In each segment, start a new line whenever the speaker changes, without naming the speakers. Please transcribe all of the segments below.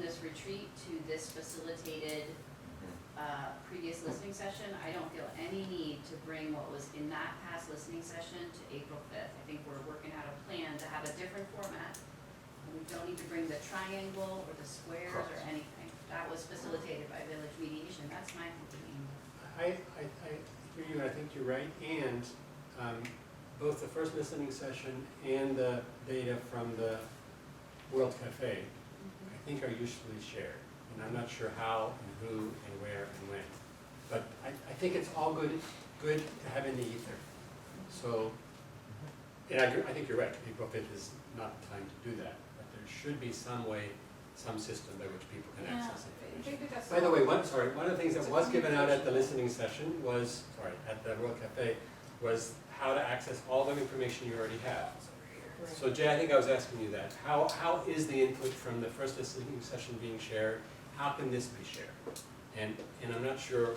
this retreat to this facilitated, uh, previous listening session, I don't feel any need to bring what was in that past listening session to April fifth. I think we're working out a plan to have a different format. And We don't need to bring the triangle or the squares or
Correct.
anything. That was facilitated by village mediation, that's my thinking.
I, I, I hear you, I think you're right, and, um, both the first listening session and the data from the World Cafe, I think are usually shared, and I'm not sure how and who and where and when. But I, I think it's all good, good to have in the ether, so, and I, agree- I think you're right, April fifth is not the time to do that, but there should be some way, some system by which people can access information. By the way, one, sorry, one of the things that was given out at the listening session was, sorry, at the World Cafe, was how to access all the information you already have. So Jay, I think I was asking you that. How, how is the input from the first listening session being shared? How can this be shared? And, and I'm not sure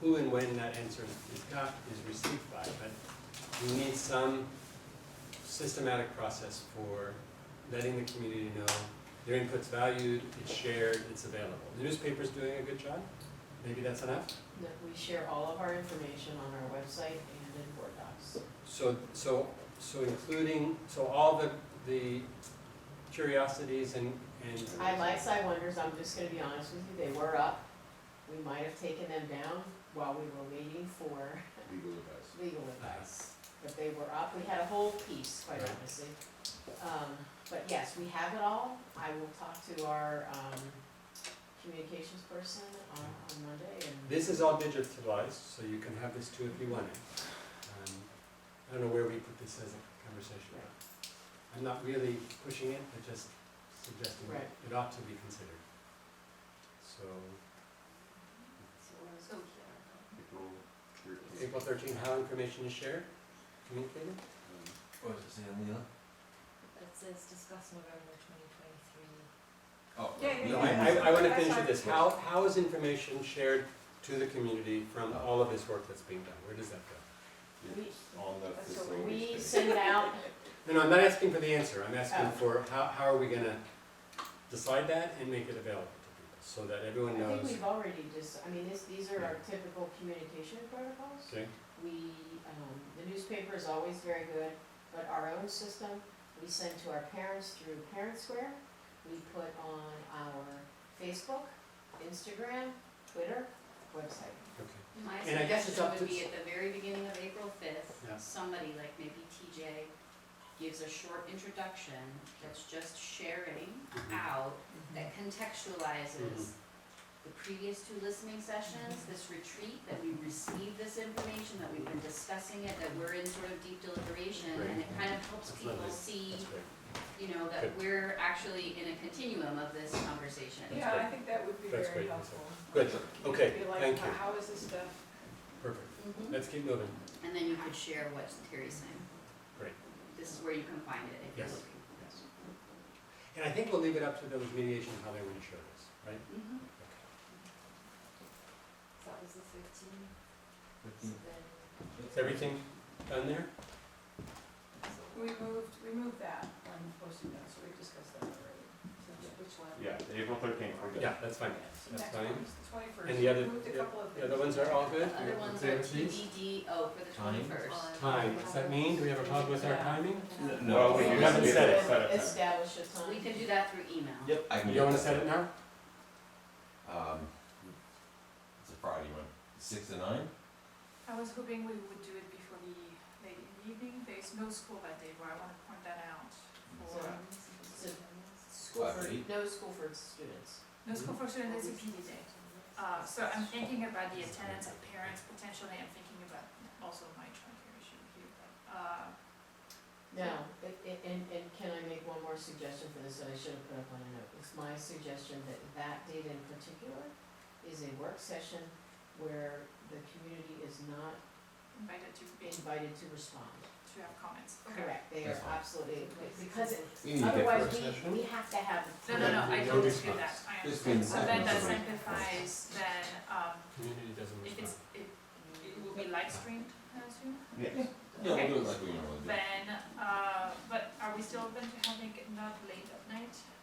who and when that answer is got, is received by, but we need some systematic process for letting the community know their input's valued, it's shared, it's available. The newspaper's doing a good job, maybe that's enough?
That we share all of our information on our website and in Word docs.
So, so, so including, so all the, the curiosities and, and.
I like Side Wonders, I'm just gonna be honest with you, they were up. We might have taken them down while we were waiting for
legal advice.
legal advice. But they were up, we had a whole piece, quite
Right.
honestly. Um, but yes, we have it all. I will talk to our, um, communications person on, on Monday and.
This is all digitalized, so you can have this too if you want it. Um, I don't know where we put this as a conversation. I'm not really pushing it, but just suggesting
Right.
it ought to be considered. So,
April thirteenth.
April thirteenth, how information is shared, communicated?
Um,
What was it, Sam Leon?
That says discuss November twenty twenty-three.
Oh.
Yeah, yeah,
No,
yeah.
I, I, I wanna
That's
finish with
fine.
this, how, how is information shared to the community from all of this work that's being done, where does that go?
It's on the
That's what
facilities.
We
page.
send out,
No, no, I'm not asking for the answer, I'm asking
Oh.
for how, how are we gonna decide that and make it available to people, so that
I
everyone
think
knows,
we've already just, I mean, this, these are our typical communication protocols.
okay?
We, um, the newspaper is always very good, but our own system, we send to our parents through Parent Square. We put on our Facebook, Instagram, Twitter, website.
Okay.
My
And I guess it's
suggestion
up
would
to-
be at the very beginning of April fifth,
Yeah.
somebody like maybe TJ gives a short introduction that's just sharing
Mhm.
out, that contextualizes
Mm-hmm.
the previous two listening sessions, this retreat, that we received this information, that we've been discussing it, that we're in sort of deep deliberation, and it kind of helps
That's
people
lovely.
see,
That's great.
you know, that
Good.
we're actually in a continuum of this conversation.
Yeah, I think that would be
That's
very
great.
helpful.
Good, okay,
Be like,
thank you,
How is this stuff
perfect,
Mhm.
let's keep moving.
And then you could share what Terry's saying.
Great.
This is where you can find it if you're
Yes.
looking.
Yes. And I think we'll leave it up to those mediation, how they want to share this, right?
Mhm.
Okay.
So that was the fifteen, so
Fifteen.
Mm.
then,
Is everything done there?
we moved, we moved that on posting that, so we discussed that already. So which one?
Yeah, April thirteenth, we're good.
Yeah, that's fine.
Okay, so
That's
next
fine.
one's the twenty-first.
And the other-
Moved a
yeah,
couple of
The other
things.
ones are all
The
good?
other
Yeah,
ones
okay,
are
please.
TBDO for the
Time.
twenty-first.
Time, what's that mean? Do we have a problem with our timing?
No, we
we
used
haven't
Oh, to
said it.
set up time.
Establish a time.
We can do that through email.
Yep. I can
You
get
don't want
that.
to set it now?
Um, it's a Friday one, six to nine?
I was hoping we would do it before the late evening, there's no school that day, but I wanna point that out for,
School for,
Five eight.
no school for students.
no school for students, it's a PD day. Uh, so I'm thinking about the attendance of parents potentially, I'm thinking about also my childcare issue here, but, uh,
Now, a- a- and, and can I make one more suggestion for this that I should have put up on a note? It's my suggestion that that date in particular is a work session where the community is not
invited to be,
invited to respond.
to have comments. Okay.
Correct, they are
That's fine.
absolutely, because it-
We need to get
otherwise
first
we,
session.
we have to have.
No, no, no, I
No
don't dispute that,
response.
I
Just
understand,
being
so then that
silent.
simplifies, then, um,
Community doesn't
if
respond.
it's, it, it will be live streamed, I assume?
Yes.
Yeah,
Okay.
we'll do it like we normally do.
Then, uh, but are we still open to having it not late at night